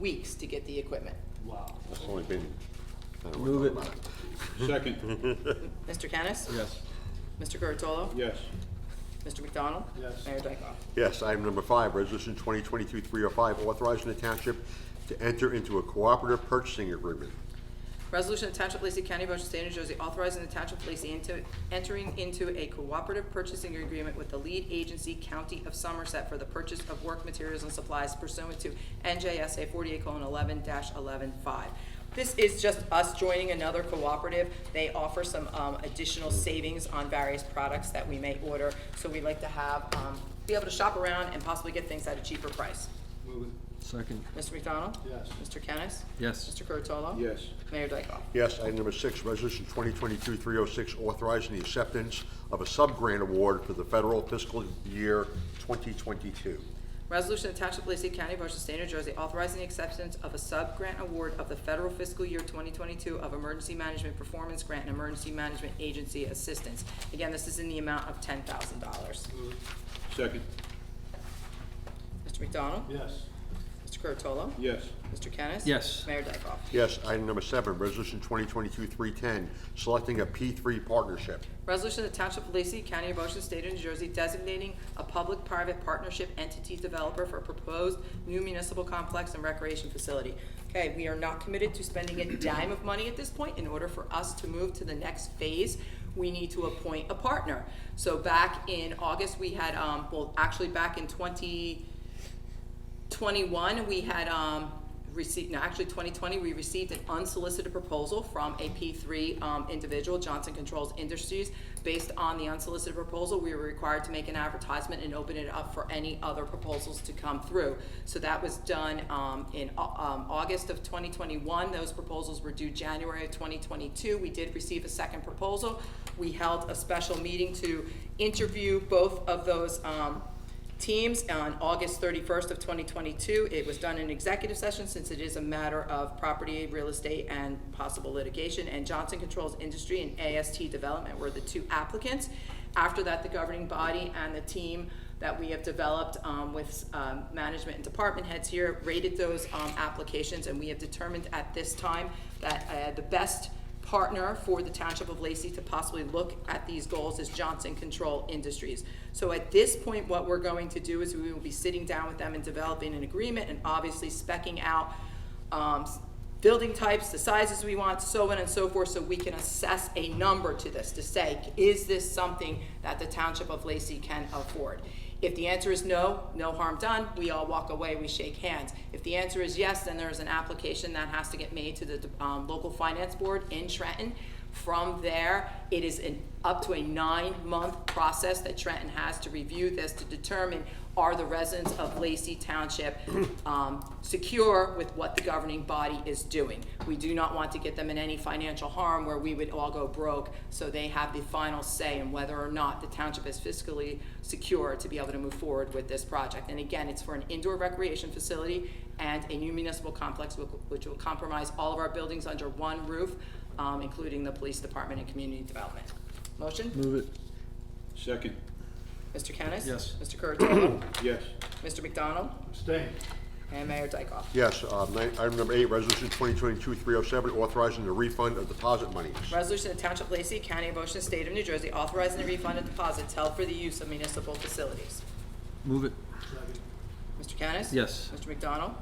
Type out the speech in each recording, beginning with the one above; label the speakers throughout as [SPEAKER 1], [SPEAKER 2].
[SPEAKER 1] weeks to get the equipment.
[SPEAKER 2] Wow.
[SPEAKER 3] It's only been. I don't know
[SPEAKER 4] Move
[SPEAKER 3] what
[SPEAKER 4] it.
[SPEAKER 3] about it.
[SPEAKER 2] Second,
[SPEAKER 1] Mr. Kennis?
[SPEAKER 4] Yes.
[SPEAKER 1] Mr. Curatolo?
[SPEAKER 2] yes.
[SPEAKER 1] Mr. McDonald?
[SPEAKER 2] Yes.
[SPEAKER 1] Mayor Dyckoff?
[SPEAKER 3] Yes, item number five, resolution 2022-305, authorizing the township to enter into a cooperative purchasing agreement.
[SPEAKER 1] Resolution of Township of Lacey County, Ocean State, New Jersey, authorizing the Township of Lacey into, entering into a cooperative purchasing agreement with the lead agency, County of Somerset, for the purchase of work materials and supplies pursuant to NJSA forty-eight eleven eleven five. This is just us joining another cooperative. They offer some, um, additional savings on various products that we may order, so we like to have, um, be able to shop around and possibly get things at a cheaper price.
[SPEAKER 2] Move it.
[SPEAKER 4] Second.
[SPEAKER 1] Mr. McDonald?
[SPEAKER 2] Yes.
[SPEAKER 1] Mr. Kennis?
[SPEAKER 4] Yes.
[SPEAKER 1] Mr. Curatolo?
[SPEAKER 2] Yes.
[SPEAKER 1] Mayor Dyckoff?
[SPEAKER 3] Yes, item number six, resolution 2022-306, authorizing the acceptance of a sub-grant award for the federal fiscal year 2022.
[SPEAKER 1] Resolution of Township of Lacey County, Ocean State, New Jersey, authorizing the acceptance of a sub-grant award of the federal fiscal year 2022 of Emergency Management Performance Grant and Emergency Management Agency Assistance. Again, this is in the amount of $10,000. Mr.
[SPEAKER 2] Second,
[SPEAKER 1] McDonald?
[SPEAKER 2] yes.
[SPEAKER 1] Mr. Curatolo?
[SPEAKER 2] Yes.
[SPEAKER 1] Mr. Kennis?
[SPEAKER 4] Yes.
[SPEAKER 1] Mayor Dyckoff?
[SPEAKER 3] Yes, item number seven, resolution 2022-310, selecting a P3 partnership.
[SPEAKER 1] Resolution of the Township of Lacey, County of Ocean, State of New Jersey, designating a public-private partnership entity developer for a proposed new municipal complex and recreation facility. Okay, we are not committed to spending a dime of money at this point. In order for us to move to the next phase, we need to appoint a partner. So back in August, we had, um, well, actually back in twenty, 21, we had um, received, no, actually 2020, we received an unsolicited proposal from a P3 um, individual, Johnson Controls Industries. Based on the unsolicited proposal, we were required to make an advertisement and open it up for any other proposals to come through. So that was done um, in Au- um, August of 2021. Those proposals were due January of 2022. We did receive a second proposal. We held a special meeting to interview both of those um, teams on August 31st of 2022. It was done in executive session since it is a matter of property, real estate, and possible litigation. And Johnson Controls Industry and AST Development were the two applicants. After that, the governing body and the team that we have developed um, with um, management and department heads here rated those um, applications, and we have determined at this time that uh, the best partner for the Township of Lacey to possibly look at these goals is Johnson Control Industries. So at this point, what we're going to do is we will be sitting down with them and developing an agreement and obviously specking out um, s- building types, the sizes we want, so on and so forth, so we can assess a number to this, to say, is this something that the Township of Lacey can afford? If the answer is no, no harm done, we all walk away, we shake hands. If the answer is yes, then there's an application that has to get made to the um, local finance board in Trenton. From there, it is an, up to a nine-month process that Trenton has to review this to determine are the residents of Lacey Township um, secure with what the governing body is doing. We do not want to get them in any financial harm where we would all go broke, so they have the final say in whether or not the township is fiscally secure to be able to move forward with this project. And again, it's for an indoor recreation facility and a new municipal complex, whi- which will compromise all of our buildings under one roof, um, including the police department and community development. Motion?
[SPEAKER 4] Move it.
[SPEAKER 2] Second,
[SPEAKER 1] Mr. Kennis?
[SPEAKER 4] Yes.
[SPEAKER 1] Mr. Curatolo?
[SPEAKER 2] yes.
[SPEAKER 1] Mr. McDonald?
[SPEAKER 2] Abstain.
[SPEAKER 1] And Mayor Dyckoff?
[SPEAKER 3] Yes, uh, ni- item number eight, resolution 2022-307, authorizing the refund of deposit monies.
[SPEAKER 1] Resolution of Township of Lacey, County of Ocean, State of New Jersey, authorizing the refund of deposits held for the use of municipal facilities.
[SPEAKER 4] Move it.
[SPEAKER 2] Second,
[SPEAKER 1] Mr. Kennis?
[SPEAKER 4] Yes.
[SPEAKER 1] Mr. McDonald?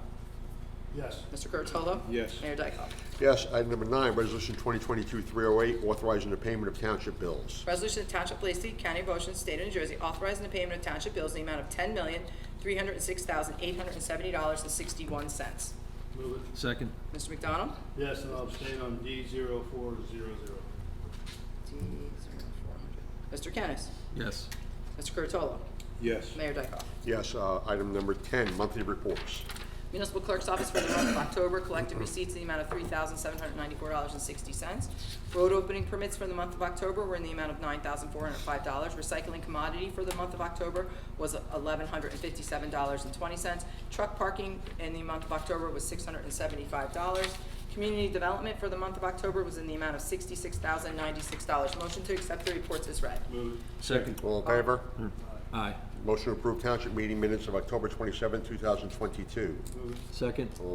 [SPEAKER 2] yes.
[SPEAKER 1] Mr. Curatolo?
[SPEAKER 2] Yes.
[SPEAKER 1] Mayor Dyckoff?
[SPEAKER 3] Yes, item number nine, resolution 2022-308, authorizing the payment of township bills.
[SPEAKER 1] Resolution of Township of Lacey, County of Ocean, State of New Jersey, authorizing the payment of township bills in the amount of ten million, three hundred and six thousand, eight hundred and seventy dollars and sixty-one cents.
[SPEAKER 2] Move it.
[SPEAKER 4] Second.
[SPEAKER 1] Mr. McDonald?
[SPEAKER 2] Yes, and I'll abstain on D zero four zero zero.
[SPEAKER 1] Mr. Kennis?
[SPEAKER 4] Yes.
[SPEAKER 1] Mr. Curatolo?
[SPEAKER 2] Yes.
[SPEAKER 1] Mayor Dyckoff?
[SPEAKER 3] Yes, uh, item number 10, monthly reports.
[SPEAKER 1] Municipal Clerk's Office for the month of October collected receipts in the amount of three thousand seven hundred ninety-four dollars and sixty cents. Road opening permits for the month of October were in the amount of nine thousand four hundred five dollars. Recycling commodity for the month of October was eleven hundred and fifty-seven dollars and twenty cents. Truck parking in the month of October was six hundred and seventy-five dollars. Community development for the month of October was in the amount of sixty-six thousand ninety-six dollars. Motion to accept the reports is read.
[SPEAKER 2] Move
[SPEAKER 4] Second.
[SPEAKER 3] All in favor?
[SPEAKER 4] Aye.
[SPEAKER 3] Motion to approve township meeting minutes of October 27, 2022.
[SPEAKER 2] it, move it.
[SPEAKER 4] Second.